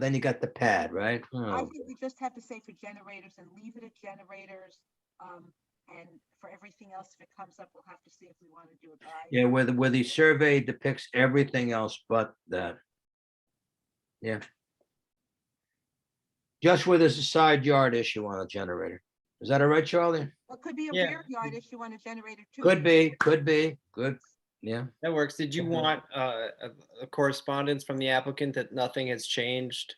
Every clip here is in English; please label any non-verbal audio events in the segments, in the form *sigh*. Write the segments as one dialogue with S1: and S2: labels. S1: Then you got the pad, right?
S2: I
S1: Oh,
S2: think we just have to say for generators and leave it at generators. Um, and for everything else, if it comes up, we'll have to see if we want to do it by.
S1: Yeah, where the, where the survey depicts everything else but that. Yeah. Just where there's a side yard issue on a generator. Is that all right, Charlie?
S2: It could be a
S3: Yeah.
S2: rear yard issue on a generator too.
S1: Could be, could be, good, yeah.
S3: That works. Did you
S1: Mhm.
S3: want uh, a- a correspondence from the applicant that nothing has changed?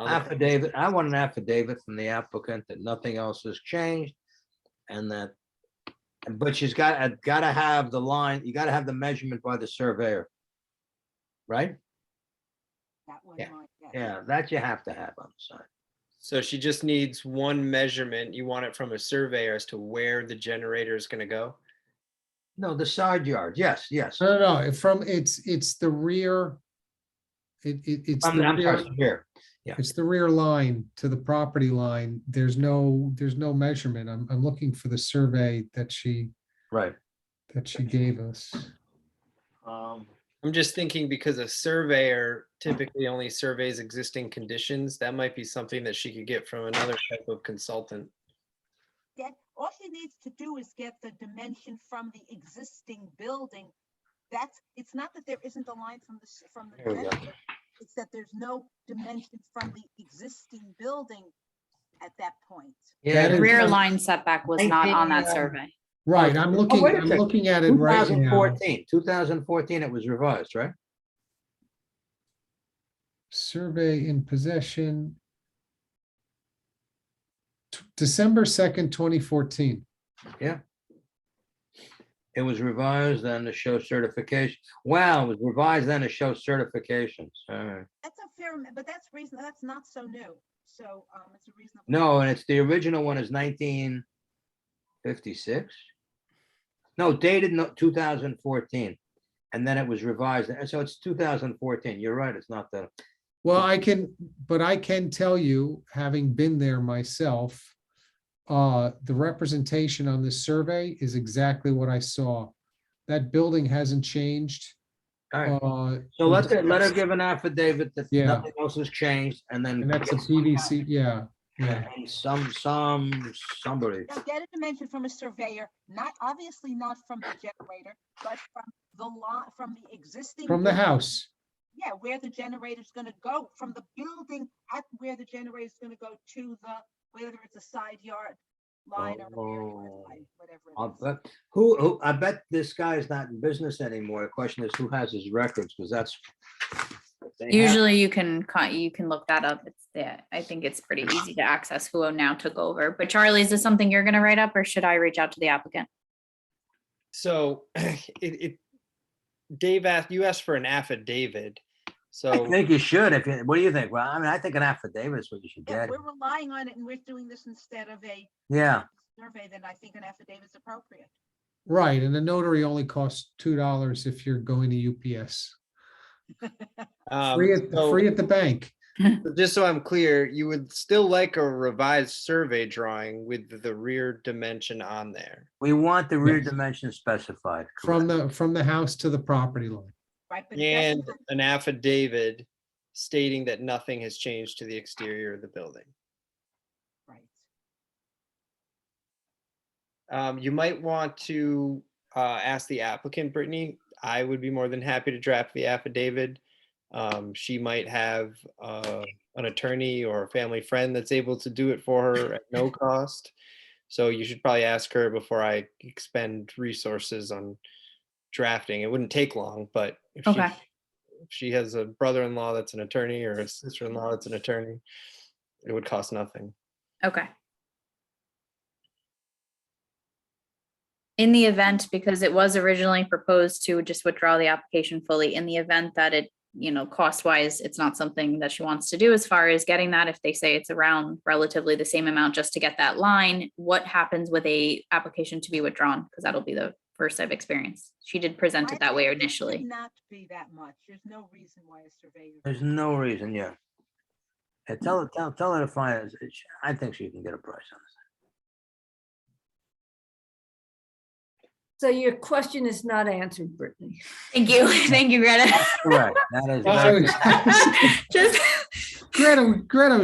S3: Um, on the-
S1: Affidavit, I want an affidavit from the applicant that nothing else has changed. And that, but she's got, uh, gotta have the line, you gotta have the measurement by the surveyor. Right?
S2: That one
S1: Yeah.
S2: line, yes.
S1: Yeah, that you have to have on the sign.
S3: So she just needs one measurement. You want it from a surveyor as to where the generator is going to go?
S1: No, the side yard, yes, yes.
S4: No, no, no, it- from, it's, it's the rear. It, it, it's
S1: I'm,
S4: the
S1: I'm
S4: rear,
S1: sorry, here,
S4: it's the rear line to the property line. There's no, there's no measurement. I'm, I'm looking for the survey that she,
S1: right.
S4: that she gave us.
S3: Um, I'm just thinking because a surveyor typically only surveys existing conditions, that might be something that she could get from another type of consultant.
S2: Get, all she needs to do is get the dimension from the existing building. That's, it's not that there isn't a line from the, s- from the.
S1: There we go.
S2: generator, It's that there's no dimension from the existing building at that point.
S1: Yeah,
S4: That is-
S5: Rear line setback was not on that survey.
S4: Right, I'm looking,
S1: Oh, wait a
S4: I'm
S1: second.
S4: looking at it right now.
S1: 2014, 2014, it was revised, right?
S4: Survey in possession. T- December second, twenty fourteen.
S1: It was revised then to show certification. Wow, it was revised then to show certifications. All right.
S2: That's a fair, am- but that's reason, that's not so new. So, um, it's a reasonable.
S1: No, and it's, the original one is 1956? No, dated no- 2014. And then it was revised. And so it's 2014. You're right, it's not the,
S4: Well, I can, but I can tell you, having been there myself, uh, the representation on this survey is exactly what I saw. That building hasn't changed.
S1: all right.
S4: Uh,
S1: So let, the- let her give an affidavit that
S4: Yeah.
S1: nothing else has changed and then.
S4: and that's a
S1: get
S4: PVC, yeah, yeah.
S1: And Some, some, somebody.
S2: Now, get a dimension from a surveyor, not, obviously not from the generator, but from the lot, from the existing.
S4: From the
S2: building.
S4: house,
S2: Yeah, where the generator's gonna go, from the building at where the generator's gonna go to the, whether it's a side yard line or a rear yard
S1: Oh.
S2: line,
S1: I'll
S2: whatever. it is.
S1: bet, who, who, I bet this guy is not in business anymore. The question is who has his records, because that's. if they have-
S5: Usually you can, con- you can look that up. It's there. I think it's pretty easy to access who now took over. But Charlie, is this something you're gonna write up or should I reach out to the applicant?
S3: So *clears throat* it, it, Dave asked, you asked for an affidavit.
S1: I
S3: So
S1: think you should, if, you- what do you think? Well, I mean, I think an affidavit is what you should
S2: Yeah,
S1: get.
S2: we're relying on it and we're doing this instead of a
S1: Yeah,
S2: survey, then I think an affidavit's appropriate.
S4: right, and the notary only costs two dollars if you're going to UPS.
S3: um,
S4: Free at,
S3: so-
S4: free at the bank,
S3: Just so I'm clear, you would still like a revised survey drawing with the rear dimension on there.
S1: we want the rear
S4: Yes.
S1: dimension specified.
S4: from
S1: correct.
S4: the, from the house to the property line.
S2: Right, but it
S3: And
S2: doesn't-
S3: an affidavit stating that nothing has changed to the exterior of the building.
S2: right.
S3: Um, you might want to, uh, ask the applicant, Brittany. I would be more than happy to draft the affidavit. Um, she might have, uh, an attorney or a family friend that's able to do it for her at no cost. So you should probably ask her before I expend resources on drafting. It wouldn't take long, but if she,
S5: Okay.
S3: if she has a brother-in-law that's an attorney or a sister-in-law that's an attorney, it would cost nothing.
S5: Okay. In the event, because it was originally proposed to just withdraw the application fully, in the event that it, you know, cost wise, it's not something that she wants to do as far as getting that, if they say it's around relatively the same amount just to get that line, what happens with a application to be withdrawn? Because that'll be the first I've experienced. She did present
S2: I
S5: it that way
S2: think it should
S5: initially.
S2: Not be that much. There's no reason why a surveyor.
S1: There's no reason, yeah. Yeah, tell her, tell, tell her to find, us. It's- I think she can get a price on this.
S6: So your question is not answered, Brittany.
S5: Thank you. *laughs* Thank you, Greta.
S1: Correct. That is.
S4: Sorry.
S5: Just.
S4: *laughs* Greta, Greta